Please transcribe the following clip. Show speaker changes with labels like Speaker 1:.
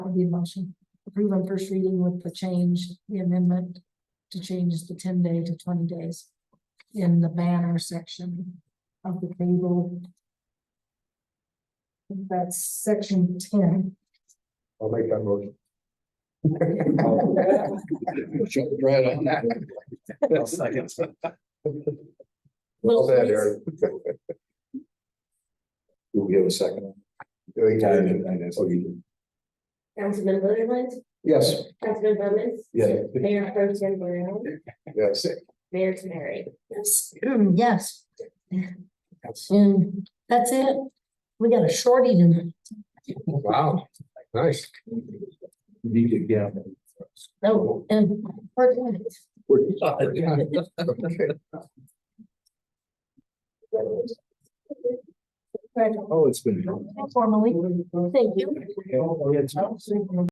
Speaker 1: would be the motion. Approve on first reading with the change, the amendment to change the ten day to twenty days in the banner section of the table. That's section ten.
Speaker 2: I'll make that motion. Shut it right on that. Well, that, Eric. You'll give a second. Oh, you did.
Speaker 3: Councilman Liverland,
Speaker 2: Yes,
Speaker 3: Councilman Bowman,
Speaker 2: yeah,
Speaker 3: Mayor Pro Tem Brown,
Speaker 2: yes.
Speaker 3: Mayor Tenary.
Speaker 1: Yes. Yes. And that's it. We got a shorty tonight.
Speaker 2: Wow, nice. Need to get.
Speaker 1: Oh, and.
Speaker 2: Oh, it's been.
Speaker 1: Formally, thank you.
Speaker 2: Oh, it's-